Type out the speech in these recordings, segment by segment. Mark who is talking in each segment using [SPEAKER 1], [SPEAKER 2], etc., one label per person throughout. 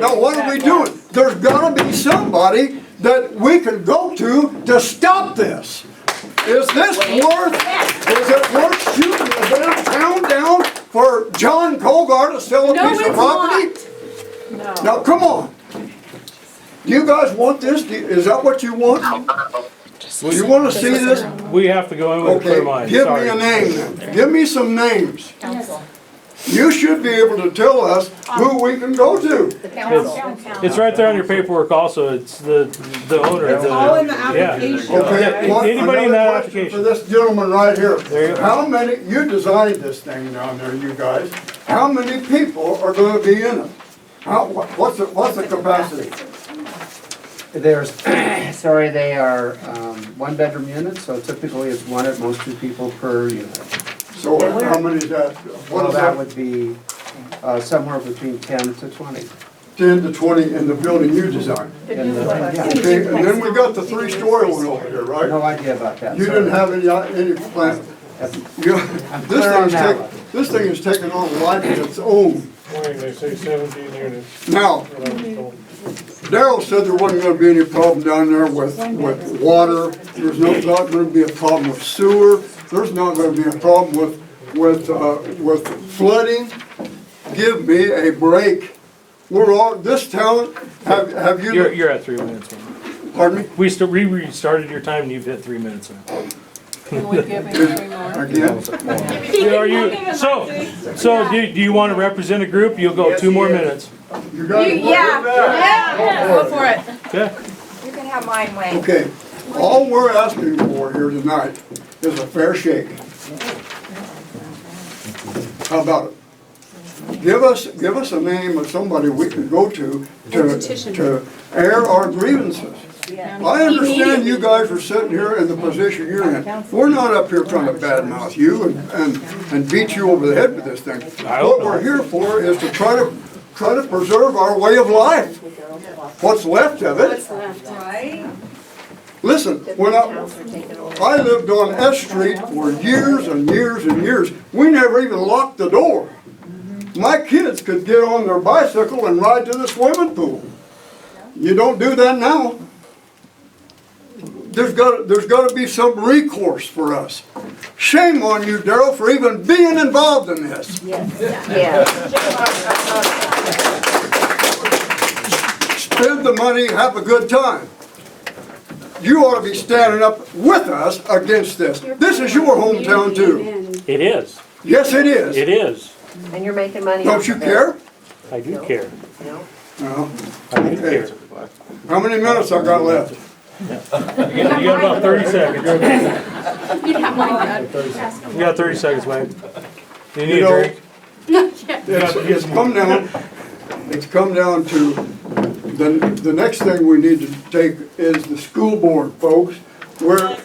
[SPEAKER 1] Now, what are we doing? There's gotta be somebody that we can go to to stop this. Is this worth, is it worth shooting the damn town down for John Colgar to sell a
[SPEAKER 2] No,
[SPEAKER 1] piece of
[SPEAKER 2] it's
[SPEAKER 1] property?
[SPEAKER 2] not. No.
[SPEAKER 1] Now, come on. Do you guys want this? Do- Is that what you want? Do you wanna see this?
[SPEAKER 3] We have to go in with a clear
[SPEAKER 1] Okay,
[SPEAKER 3] mind,
[SPEAKER 1] give me
[SPEAKER 3] sorry.
[SPEAKER 1] a name then. Give me some names.
[SPEAKER 4] Council,
[SPEAKER 1] You should be able to tell us who we can go to.
[SPEAKER 4] the council.
[SPEAKER 3] It's right there on your paperwork also, it's the, the owner of
[SPEAKER 2] All in the
[SPEAKER 3] the,
[SPEAKER 2] application.
[SPEAKER 1] Okay,
[SPEAKER 3] Yeah,
[SPEAKER 1] one-
[SPEAKER 3] anybody in
[SPEAKER 1] another
[SPEAKER 3] that
[SPEAKER 1] question
[SPEAKER 3] application.
[SPEAKER 1] For this gentleman right here.
[SPEAKER 3] There you go.
[SPEAKER 1] How many, you designed this thing down there, you guys. How many people are gonna be in it? How, wha- what's the, what's the capacity?
[SPEAKER 5] There's, sorry, they are um, one-bedroom units, so typically it's one at most two people per unit.
[SPEAKER 1] So how many is that? What
[SPEAKER 5] Well,
[SPEAKER 1] is
[SPEAKER 5] that
[SPEAKER 1] that,
[SPEAKER 5] would be uh, somewhere between 10 to 20.
[SPEAKER 1] ten to twenty in the building you designed?
[SPEAKER 5] Yeah,
[SPEAKER 1] Okay, and then we got the three-story one over here, right?
[SPEAKER 5] No idea about that.
[SPEAKER 1] You didn't have any, uh, any plan? You- This
[SPEAKER 5] clear
[SPEAKER 1] thing
[SPEAKER 5] on
[SPEAKER 1] is
[SPEAKER 5] that
[SPEAKER 1] taking,
[SPEAKER 5] one.
[SPEAKER 1] this thing is taking on a life of its own.
[SPEAKER 6] they say seventeen units,
[SPEAKER 1] Now,
[SPEAKER 6] what I was told.
[SPEAKER 1] Daryl said there wasn't gonna be any problem down there with, with water, there's no, not gonna be a problem with sewer, there's not gonna be a problem with, with, uh, with flooding. Give me a break. We're all, this town, have, have
[SPEAKER 3] you're,
[SPEAKER 1] you,
[SPEAKER 3] you're at three minutes. man.
[SPEAKER 1] pardon me,
[SPEAKER 3] We st- we restarted your time and you've hit three minutes. man.
[SPEAKER 2] Can we give him three more?
[SPEAKER 1] again?
[SPEAKER 3] Are you, so, so do, do you wanna represent a group? You'll go two more minutes.
[SPEAKER 1] You guys want
[SPEAKER 2] Yeah, yeah, go for it.
[SPEAKER 3] Okay?
[SPEAKER 4] You can have mine, Wayne.
[SPEAKER 1] Okay, all we're asking for here tonight is a fair shake. How about it? Give us, give us a name of somebody we can go to to, to air our grievances. I understand you guys are sitting here in the position you're in. We're not up here trying to badmouth you and, and, and beat you over the head with this thing.
[SPEAKER 3] I hope
[SPEAKER 1] What we're here for is to try to, try to preserve our way of life, what's left of it.
[SPEAKER 2] Right?
[SPEAKER 1] Listen, when I, I lived on S Street for years and years and years. We never even locked the door. My kids could get on their bicycle and ride to the swimming pool. You don't do that now. There's got, there's gotta be some recourse for us. Shame on you, Daryl, for even being involved in this.
[SPEAKER 4] Yeah.
[SPEAKER 1] Spend the money, have a good time. You ought to be standing up with us against this. This is your hometown too.
[SPEAKER 3] It is,
[SPEAKER 1] Yes, it is.
[SPEAKER 3] it is.
[SPEAKER 4] And you're making money.
[SPEAKER 1] Don't you care?
[SPEAKER 3] I do care.
[SPEAKER 1] No.
[SPEAKER 3] I do care.
[SPEAKER 1] How many minutes I got left?
[SPEAKER 3] You got you got about thirty seconds.
[SPEAKER 5] Thursday.
[SPEAKER 3] You got thirty seconds, Wayne. You
[SPEAKER 1] You
[SPEAKER 3] need a
[SPEAKER 1] know-
[SPEAKER 3] drink?
[SPEAKER 1] It's, it's come down, it's come down to, the, the next thing we need to take is the school board, folks. We're,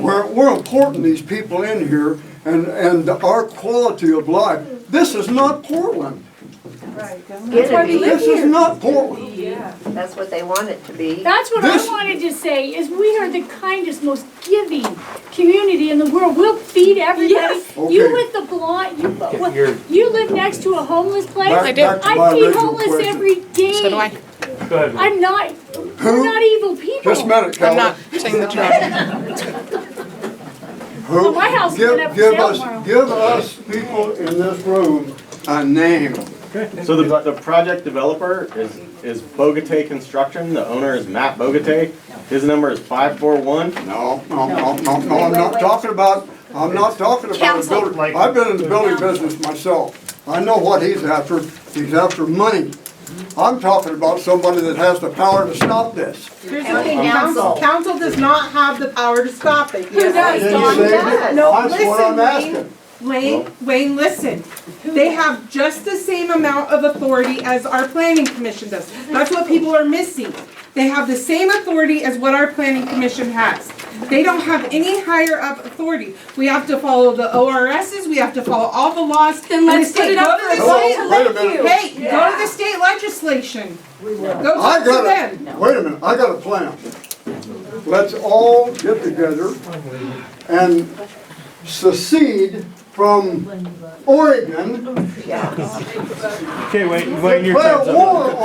[SPEAKER 1] we're, we're importing these people in here and, and our quality of life. This is not Portland.
[SPEAKER 4] Get it.
[SPEAKER 1] This is not Portland.
[SPEAKER 4] That's what they want it to be.
[SPEAKER 7] That's what I
[SPEAKER 1] This-
[SPEAKER 7] wanted to say, is we are the kindest, most giving community in the world. We'll feed everybody.
[SPEAKER 2] Yes.
[SPEAKER 1] Okay.
[SPEAKER 7] You with the blonde, you,
[SPEAKER 3] you're-
[SPEAKER 7] what- you live next to a homeless place?
[SPEAKER 1] Back- I do. back to my
[SPEAKER 7] I feed
[SPEAKER 1] original
[SPEAKER 7] homeless
[SPEAKER 1] question.
[SPEAKER 7] every day. So do I.
[SPEAKER 3] Go ahead. Wayne.
[SPEAKER 7] am not, we're not evil people.
[SPEAKER 1] Just a minute, Calvin.
[SPEAKER 2] Saying the truth.
[SPEAKER 1] Who,
[SPEAKER 7] My house is
[SPEAKER 1] give,
[SPEAKER 7] gonna have to
[SPEAKER 1] give
[SPEAKER 7] sell
[SPEAKER 1] us,
[SPEAKER 7] tomorrow.
[SPEAKER 1] give us people in this room a name.
[SPEAKER 8] So the, the project developer is, is Bogate Construction, the owner is Matt Bogate. His number is five four one.
[SPEAKER 1] No, no, no, no, no, I'm not talking about, I'm not talking about a
[SPEAKER 2] Counsel.
[SPEAKER 1] builder. I've been in the building business myself. I know what he's after. He's after money. I'm talking about somebody that has the power to stop this.
[SPEAKER 2] Here's the thing, council, council does not have the power to stop it.
[SPEAKER 7] Who
[SPEAKER 1] Did
[SPEAKER 7] does?
[SPEAKER 2] Yes,
[SPEAKER 1] you
[SPEAKER 2] Don
[SPEAKER 1] say
[SPEAKER 2] does.
[SPEAKER 1] that?
[SPEAKER 2] No,
[SPEAKER 1] That's what I'm
[SPEAKER 2] listen,
[SPEAKER 1] asking.
[SPEAKER 2] Wayne, Wayne, listen. They have just the same amount of authority as our planning commission does. That's what people are missing. They have the same authority as what our planning commission has. They don't have any higher up authority. We have to follow the ORSs, we have to follow all the laws.
[SPEAKER 7] Then let's
[SPEAKER 2] We say,
[SPEAKER 7] put it up
[SPEAKER 2] "Go to
[SPEAKER 7] for
[SPEAKER 2] the
[SPEAKER 1] Hello,
[SPEAKER 2] state-
[SPEAKER 1] wait a minute.
[SPEAKER 2] Hey, go to the state legislation. Go
[SPEAKER 1] I
[SPEAKER 2] talk to
[SPEAKER 1] got
[SPEAKER 2] them.
[SPEAKER 1] a, wait a minute, I got a plan. Let's all get together and secede from Oregon.
[SPEAKER 3] Okay, Wayne, Wayne, your time's
[SPEAKER 1] Declare
[SPEAKER 3] up.
[SPEAKER 1] war